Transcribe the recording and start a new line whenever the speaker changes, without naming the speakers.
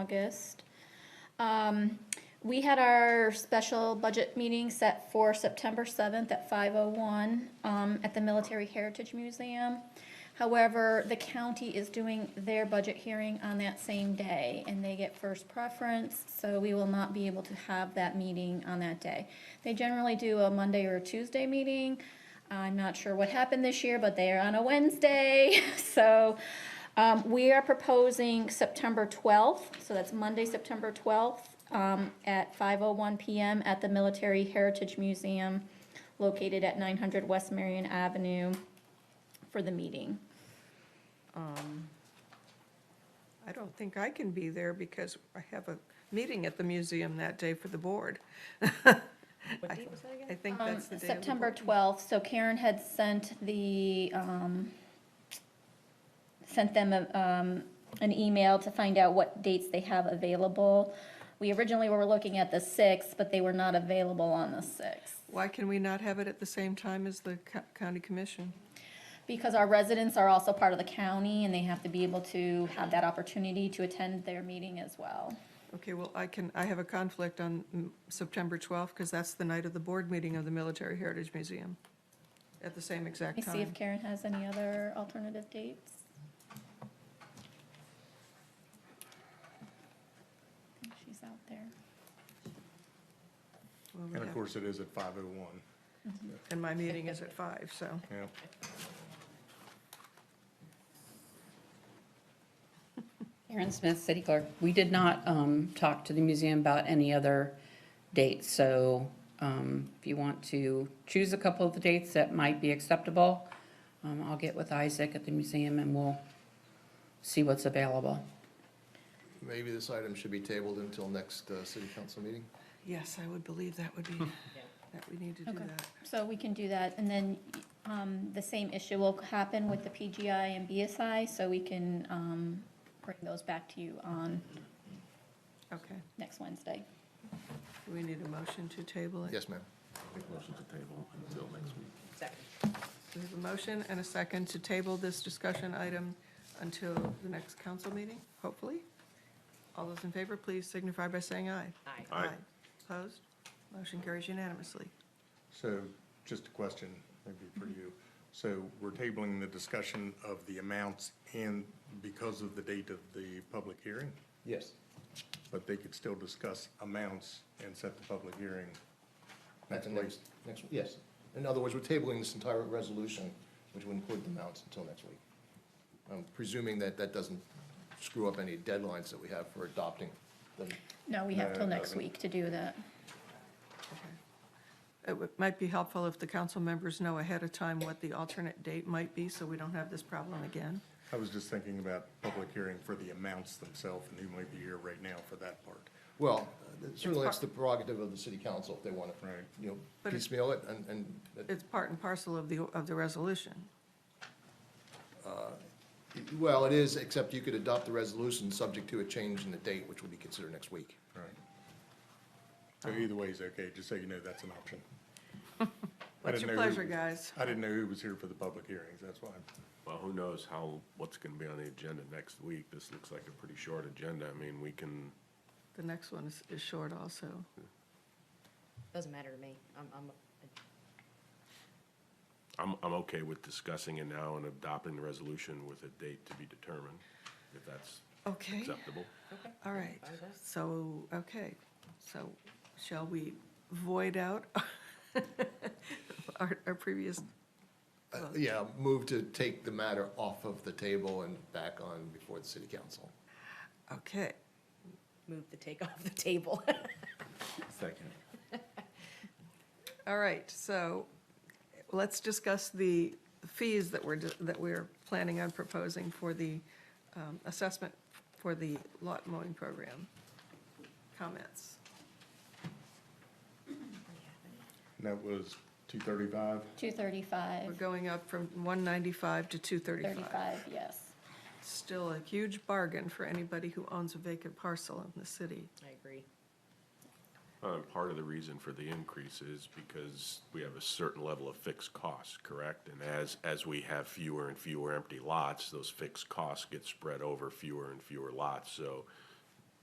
August. Um, we had our special budget meeting set for September seventh at five oh one, um, at the Military Heritage Museum. However, the county is doing their budget hearing on that same day, and they get first preference, so we will not be able to have that meeting on that day. They generally do a Monday or a Tuesday meeting. I'm not sure what happened this year, but they are on a Wednesday, so, um, we are proposing September twelfth, so that's Monday, September twelfth, um, at five oh one PM at the Military Heritage Museum located at nine hundred West Marion Avenue for the meeting.
Um, I don't think I can be there because I have a meeting at the museum that day for the board.
What date was that
I
again?
think
Um,
that's the day. of the
September
board.
twelfth, so Karen had sent the, um, sent them, a, um, an email to find out what dates they have available. We originally were looking at the sixth, but they were not available on the sixth,
Why can we not have it at the same time as the co- county commission?
because our residents are also part of the county, and they have to be able to have that opportunity to attend their meeting as well.
Okay, well, I can, I have a conflict on mm, September 12th because that's the night of the board meeting of the Military Heritage Museum at the same
Let
exact
me see if
time.
Karen has any other alternative dates. I think She's out there.
Well, we
And of
have-
course, it is at 5:01,
And my meeting is at five, so.
yeah.
Aaron Smith, City Clerk. We did not um, talk to the museum about any other dates, so um, if you want to choose a couple of the dates that might be acceptable, um, I'll get with Isaac at the museum and we'll see what's available.
Maybe this item should be tabled until next uh, city council meeting?
Yes, I would believe that would be,
Hmm.
that we need to do
Okay.
that.
So we can do that, and then um, the same issue will happen with the PGI and BSI, so we can um, bring those back to you on
Okay,
next Wednesday.
Do we need a motion to table it?
Yes, ma'am.
Second.
We have a motion and a second to table this discussion item until the next council meeting, hopefully. All those in favor, please signify by saying aye.
Aye.
Opposed? Motion carries unanimously.
So just a question, maybe for you. So we're tabling the discussion of the amounts and because of the date of the public hearing,
Yes.
but they could still discuss amounts and set the public hearing.
At the next, next, yes. In other words, we're tabling this entire resolution, which would include the amounts, until next week. I'm presuming that that doesn't screw up any deadlines that we have for adopting them.
No, we have
No,
till
it
next
doesn't.
week to do that.
It would- might be helpful if the council members know ahead of time what the alternate date might be, so we don't have this problem again.
I was just thinking about public hearing for the amounts themselves, and who might be here right now for that part.
Well, certainly that's the prerogative of the city council if they want to,
Right.
you know,
But it's-
piecemeal it and, and that-
It's part and parcel of the, of the resolution.
Well, it is, except you could adopt the resolution subject to a change in the date, which will be considered next week.
Right.
Oh.
So either way is okay, just so you know, that's an option. I
What's
didn't
your
know who-
pleasure, guys?
I didn't know who was here for the public hearings, that's why.
Well, who knows how, what's gonna be on the agenda next week? This looks like a pretty short agenda. I mean, we can,
The next one is, is short also.
Doesn't matter to me. I'm, I'm,
I'm, I'm okay with discussing it now and adopting the resolution with a date to be determined, if that's
Okay,
acceptable.
all right.
Fine with that.
So, okay, so shall we void out our, our previous,
Uh, Yeah, move to take the matter off of the table and back on before the city council.
okay.
move the take off the table.
Second.
All right, so let's discuss the fees that we're, that we're planning on proposing for the um, assessment for the lot mowing program. Comments?
And that was two thirty-five?
Two
We're
thirty-five,
going up from 195 to 235.
thirty-five, yes.
Still a huge bargain for anybody who owns a vacant parcel in the city.
I agree.
Uh, part of the reason for the increase is because we have a certain level of fixed costs, correct? And as, as we have fewer and fewer empty lots, those fixed costs get spread over fewer and fewer lots. So